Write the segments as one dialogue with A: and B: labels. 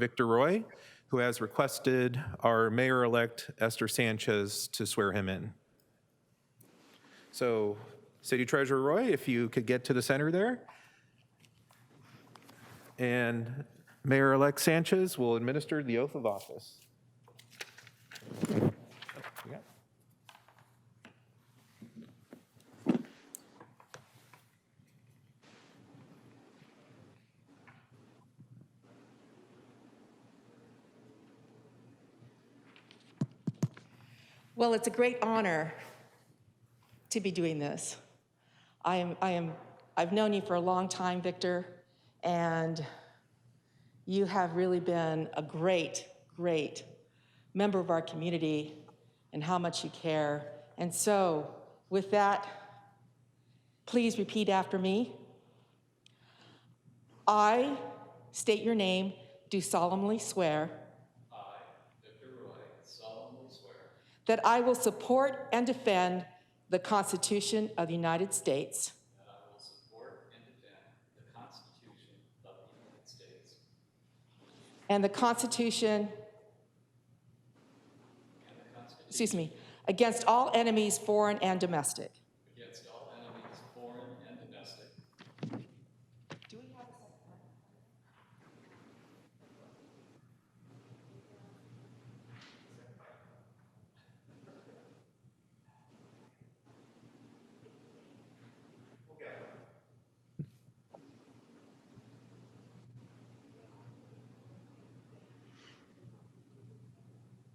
A: Victor Roy, who has requested our mayor-elect Esther Sanchez to swear him in. So City Treasurer Roy, if you could get to the center there. And Mayor-elect Sanchez will administer the oath of office.
B: Well, it's a great honor to be doing this. I am, I am, I've known you for a long time, Victor, and you have really been a great, great member of our community and how much you care. And so, with that, please repeat after me. I state your name, do solemnly swear. That I will support and defend the Constitution of the United States. That I will support and defend the Constitution of the United States. And the Constitution. Excuse me, against all enemies, foreign and domestic.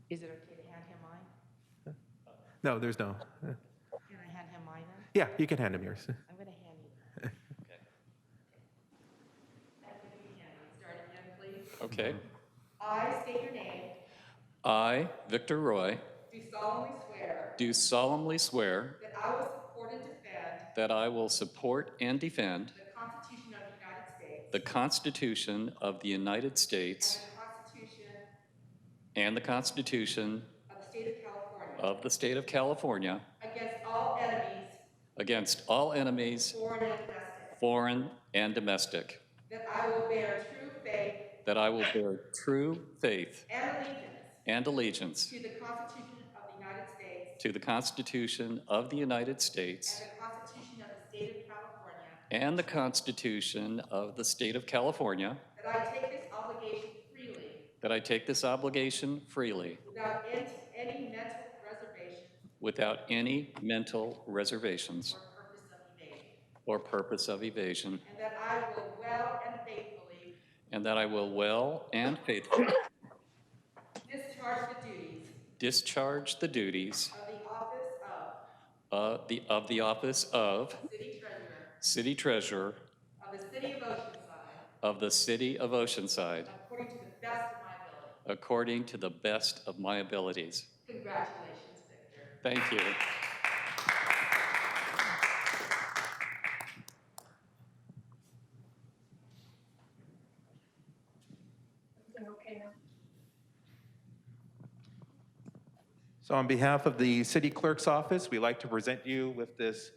B: Is it okay to hand him mine?
A: No, there's no.
B: Can I hand him mine then?
A: Yeah, you can hand him yours.
B: I'm going to hand you. Start again, please.
C: Okay.
B: I state your name,
C: I, Victor Roy,
B: do solemnly swear
C: do solemnly swear
B: that I will support and defend
C: that I will support and defend
B: the Constitution of the United States
C: the Constitution of the United States
B: and the Constitution
C: and the Constitution
B: of the State of California
C: of the State of California
B: against all enemies,
C: against all enemies,
B: foreign and domestic,
C: foreign and domestic,
B: that I will bear true faith
C: that I will bear true faith
B: and allegiance
C: and allegiance
B: to the Constitution of the United States
C: to the Constitution of the United
B: and
C: States
B: the Constitution of the State of California,
C: and the Constitution of the State of California,
B: that I take this obligation freely
C: that I take this
B: without
C: obligation freely
B: any any mental reservation
C: without any mental reservations
B: or purpose of evasion,
C: or purpose of evasion,
B: and that I will well and faithfully
C: and that I will well and faithfully
B: discharge the duties
C: discharge the duties
B: of the office of
C: of the, of the office of
B: City Treasurer
C: City Treasurer
B: of the City of Oceanside
C: of the City of Oceanside
B: according to the best of my ability.
C: according to the best of my abilities.
B: Congratulations, Victor.
C: Thank you.
A: So on behalf of the City Clerk's Office, we'd like to present you with this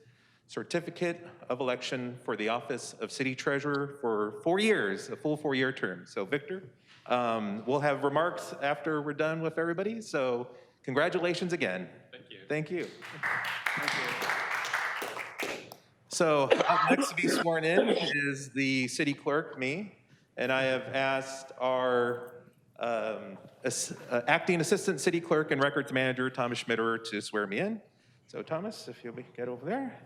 A: certificate of election for the office of City Treasurer for four years, a full four-year term. So Victor, um, we'll have remarks after we're done with everybody, so congratulations again. Thank you. Thank you. So up next to be sworn in is the city clerk, me, and I have asked our um, ass- uh, acting assistant city clerk and records manager, Thomas Schmitterer, to swear me in. So Thomas, if you'll be- get over there.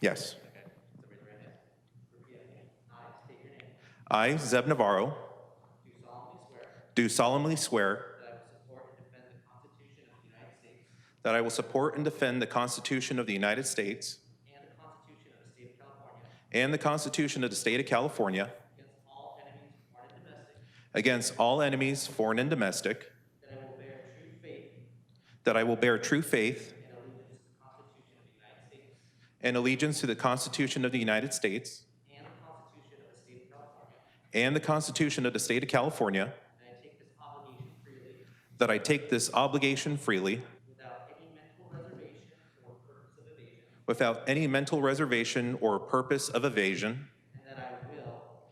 A: Yes. I, Zeb Navarro,
D: Do solemnly swear
A: do solemnly swear
D: that I will support and defend the Constitution of the United States
A: that I will support and defend the Constitution of the United States
D: and the Constitution of the State of California
A: and the Constitution of the State of California
D: against all enemies, foreign and domestic,
A: against all enemies, foreign and domestic,
D: that I will bear true faith
A: that I will bear true faith
D: and allegiance to the Constitution of the United States
A: and allegiance to the Constitution of the United States
D: and the Constitution of the State of California,
A: and the Constitution of the State of California,
D: and I take this obligation freely
A: that I take this obligation freely
D: without any mental reservation or purpose of evasion,
A: without any mental reservation or purpose of evasion,